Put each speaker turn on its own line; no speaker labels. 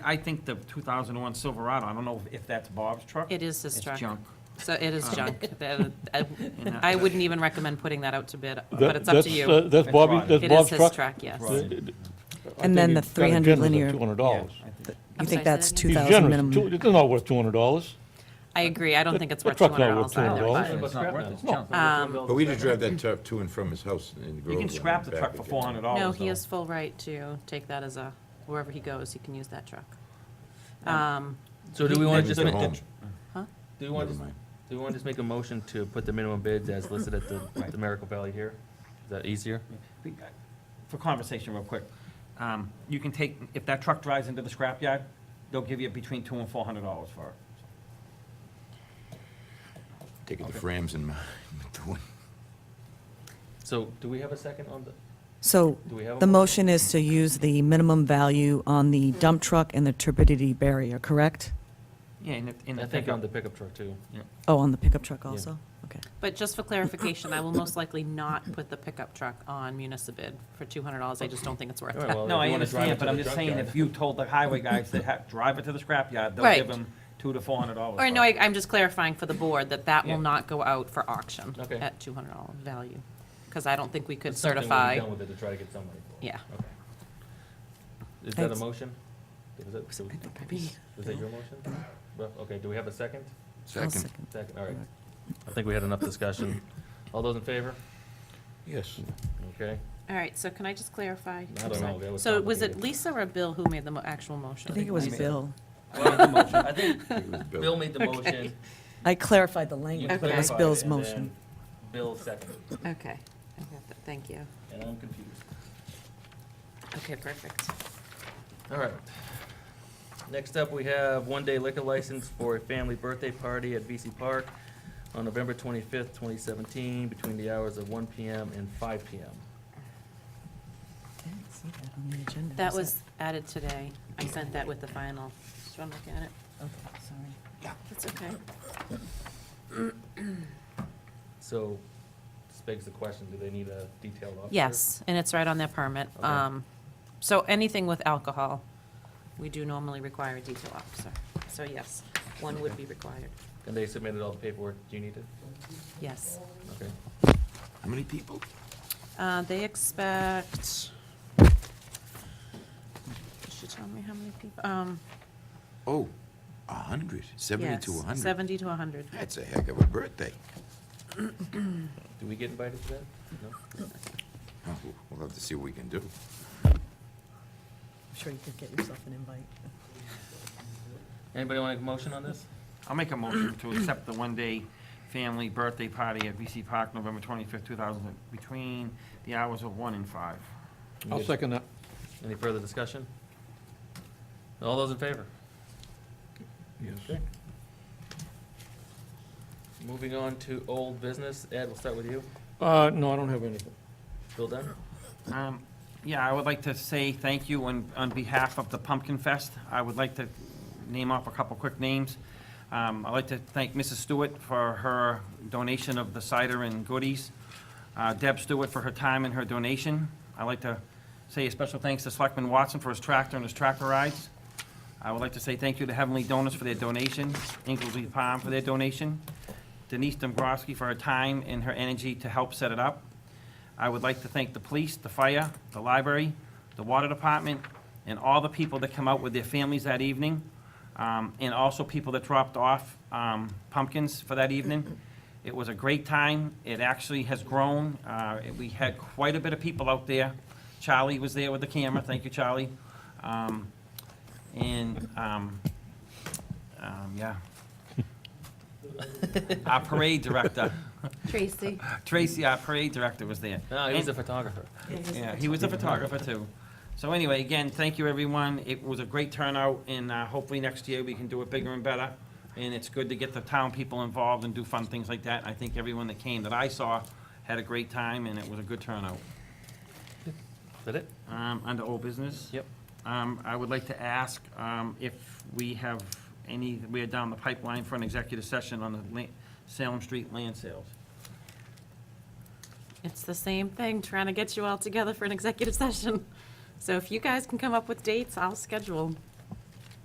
I think the 2001 Silverado, I don't know if that's Bob's truck.
It is his truck.
It's junk.
So it is junk. That- I I wouldn't even recommend putting that out to bid, but
That-
it's up to
that's, uh,
you.
That's
That's
Bobby,
right.
that's
It
Bob's
is
truck?
his truck, yes.
Right.
I
And
think
then
he
the
got it
300
generous at
linear-
Oh,
$200.
Yeah, I think-
You
I'm
think
sorry, say
that's
that again?
He's
2,000
generous, Two-
minimum?
it's not worth $200.
I agree. I don't think it's
The
worth two
truck's
hundred
not worth
dollars either.
$200.
but-
It's not worth it, it's junk.
Um,
But we just drive that truck to and from his house in Groveland.
You can scrap the
and
truck for
back again.
$400 though.
No, he has full right to take that as a, wherever he goes, he can use that truck. Um,
So do we want
Maybe
to just
go
make, the-
home.
do we want,
Never
to
mind.
do we want to just make a motion to put the minimum bids as listed at the, the Miracle Valley here? Is that easier?
uh, For conversation real quick, um, you can take, if that truck drives into the scrapyard, they'll give you between two and $400 for it.
Take it to Fram's and, do it.
So do we have a second on the,
So
Do we have a
the
motion?
motion is to use the minimum value on the dump truck and the turbidity barrier, correct?
Yeah, in the, in the
I think on
pickup.
the pickup truck too.
Oh, on the pickup truck also? Okay.
But just for clarification, I will most likely not put the pickup truck on municipal for two hundred dollars. I just don't think it's worth
All right,
that.
Oh, well,
No,
if
I
you wanna drive it
understand, but
to the
I'm just saying,
junkyard.
if you told the highway guys to have, drive it to the scrapyard, they'll
Right.
give them two to $400.
Or no, I- I'm just clarifying for the board that that
Yeah.
will not go out for auction
Okay.
at two hundred dollar value, because I don't think we could
It's something we'll be
certify.
Done with it to try to get somebody for it.
Yeah.
Okay. Is that a
Thanks.
motion? Was that, was was that your motion? Well, Okay, do we have a second?
I'll
second,
Second, all right. I think we had enough discussion. All those in favor?
yes.
Okay.
All right, so can I just clarify?
I
I'm
don't
sorry.
know, that was
So was it
complicated.
Lisa or Bill who made the mo- actual motion?
I think it was
Wait a
Bill.
I think
It was built.
Bill made the motion.
I clarified the
you
language, but it
Okay.
was
clarified
Bill's
it, and
motion.
then Bill seconded,
Okay, I got that, thank you.
and I'm confused.
Okay, perfect.
All right. Next up, we have one-day liquor license for a family birthday party at VC Park on November twenty-fifth, twenty seventeen, between the hours of one PM and five PM.
I didn't see that on the agenda.
That was added today. I sent that with the final. Just want to look at it.
Okay, sorry.
That's okay.
So, this begs the question, do they need a detailed officer?
Yes, and it's right on their permit.
Okay.
Um, So anything with alcohol, we do normally require a detail officer. So yes, one would be required.
And they submitted all the paperwork, do you need it?
Yes.
Okay.
How many people?
Uh, They expect, did she tell me how many people? Um,
Oh, a hundred, seventy to
yes,
a hundred.
70 to 100.
That's a heck of a birthday.
Do we get invited to that? No?
Oh, We'll have to see what we can do.
I'm sure you could get yourself an invite.
Anybody want a motion on this?
I'll make a motion to accept the one-day family birthday party at VC Park, November 25th, 2000, between the hours of 1 and 5.
I'll second that.
Any further discussion? All those in favor?
Yes.
Moving on to old business, Ed, we'll start with you.
Uh, no, I don't have anything.
Bill Dunn?
Um, Yeah, I would like to say thank you on, on behalf of the Pumpkin Fest. I would like to name off a couple quick names. Um, I'd like to thank Mrs. Stewart for her donation of the cider and goodies, uh, Deb Stewart for her time and her donation. I'd like to say a special thanks to Selectman Watson for his tractor and his tractor rides. I would like to say thank you to Heavenly Donors for their donation, Inglesy Palm for their donation, Denise Dombrowski for her time and her energy to help set it up. I would like to thank the police, the fire, the library, the water department, and all the people that come out with their families that evening, um, and also people that dropped off um, pumpkins for that evening. It was a great time. It actually has grown. Uh, We had quite a bit of people out there. Charlie was there with the camera. Thank you, Charlie. Um, And, um, um, yeah. Our parade director,
Tracy.
Tracy, our parade director was there.
No, Ah, he was a
And-
photographer.
yeah, he was a photographer too. So anyway, again, thank you, everyone. It was a great turnout, and uh, hopefully next year we can do it bigger and better. And it's good to get the town people involved and do fun things like that. I think everyone that came that I saw had a great time, and it was a good turnout.
Is that it?
Um, Under old business?
Yep.
Um, I would like to ask um, if we have any, we are down the pipeline for an executive session on the la- Salem Street land sales.
It's the same thing, trying to get you all together for an executive session. So if you guys can come up with dates, I'll schedule